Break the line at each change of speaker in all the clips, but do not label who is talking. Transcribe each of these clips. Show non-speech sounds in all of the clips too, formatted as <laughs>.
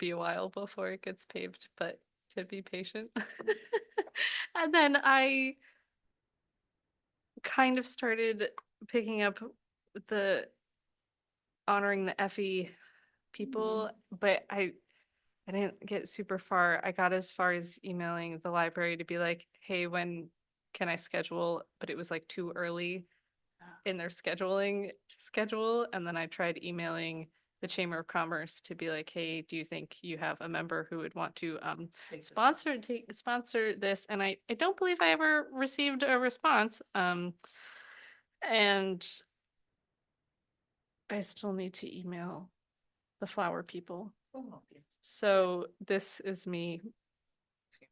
be a while before it gets paved, but to be patient. <laughs> And then I kind of started picking up the honoring the Effie people, but I I didn't get super far. I got as far as emailing the library to be like, hey, when can I schedule? But it was like too early
Ah.
in their scheduling to schedule. And then I tried emailing the Chamber of Commerce to be like, hey, do you think you have a member who would want to um sponsor take sponsor this? And I I don't believe I ever received a response. Um and I still need to email the flower people. So this is
<laughs>
me <laughs>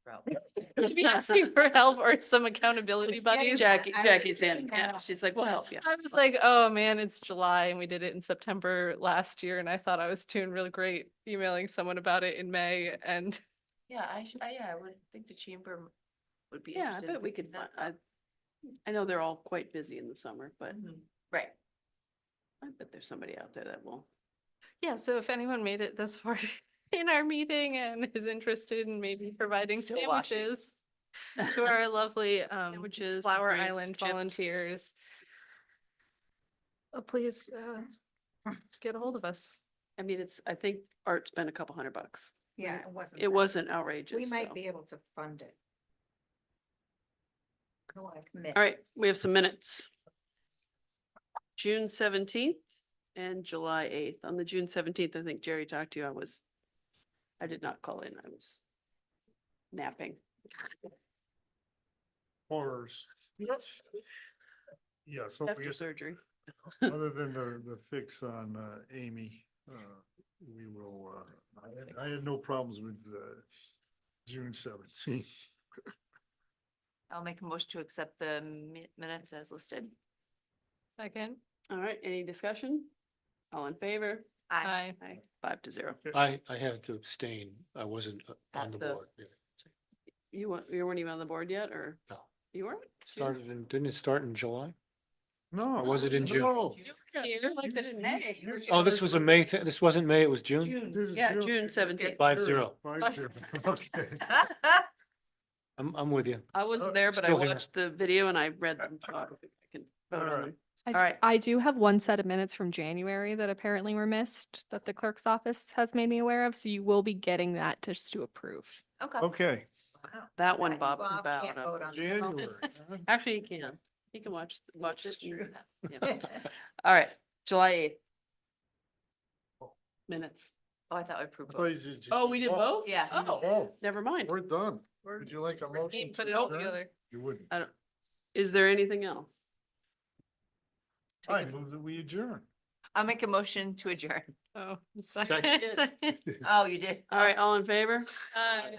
<laughs>
asking for help or some accountability buddies.
Jackie,
I-
Jackie's in,
I
yeah,
know.
she's like, we'll help you.
I was like, oh man, it's July and we did it in September last year and I thought I was doing really great emailing someone about it in May and
Yeah, I should, I, yeah, I would think the chamber would be
Yeah, I
interested.
bet we could, fi- uh, I, I know they're all quite busy in the summer, but
Mm-hmm. Right.
I bet there's somebody out there that will.
yeah, so if anyone made it this far <laughs> in our meeting and is interested in maybe providing
Still washing.
sandwiches
<laughs>
to our lovely um
Sandwiches,
Flower
drinks,
Island
chips.
volunteers, uh, please uh, get a hold of us.
I mean, it's, I think art's been a couple hundred bucks.
Yeah, it wasn't.
It
that
wasn't
expensive. We
outrageous, so.
might be able to fund it. I want to commit.
All right, we have some minutes. June seventeenth and July eighth. On the June seventeenth, I think Jerry talked to you. I was, I did not call in. I was napping.
Horrors. Yes. Yeah, so I
After
guess,
surgery.
<laughs> other than the, the fix on, uh, Amy, uh, we will, uh, I had, I had no problems with, uh, June
<laughs>
seventeenth.
I'll make a motion to accept the mi- minutes as listed.
Second,
All right, any discussion? All in favor?
I,
aye.
Aye, five to zero.
I, I have to abstain. I wasn't uh, on
At
the
the-
board. yeah.
You weren't, you weren't even on the board yet, or?
No.
You weren't?
Started in, didn't it start in July?
No.
Or was it in June?
no,
You liked it in May.
You- you-
Oh, this was a May, thi- this wasn't May, it was June?
<laughs>
it was
June, yeah, June seventeenth.
Five zero.
<laughs>
Five zero, <laughs> okay.
I'm, I'm with you.
I wasn't there, but I
Oh, Still here.
watched the video and I read them. so I can vote
All
on
right.
them. All right.
I do have one set of minutes from January that apparently were missed that the clerk's office has made me aware of, so you will be getting that just to approve.
Okay.
Okay,
Wow.
That one
Yeah,
Bob can
Bob
bow
can't
out
vote
of.
on that.
January. huh?
Actually, he can. He can watch, watch
<laughs> That's
it. <laughs> and- yeah.
true.
All right, July eighth. Minutes.
Oh, I thought we approved
I thought
both.
you said June.
Oh, we did both?
Yeah.
Oh,
Oh,
never mind.
we're done. Would you like a motion?
Put
to
it all
adjourn?
together.
You wouldn't.
I don't, is there anything else? Take
I
it-
move that we adjourn.
I'll make a motion to adjourn.
Oh,
Second.
second.
<laughs>
Oh, you did.
All right, all in favor?
Aye.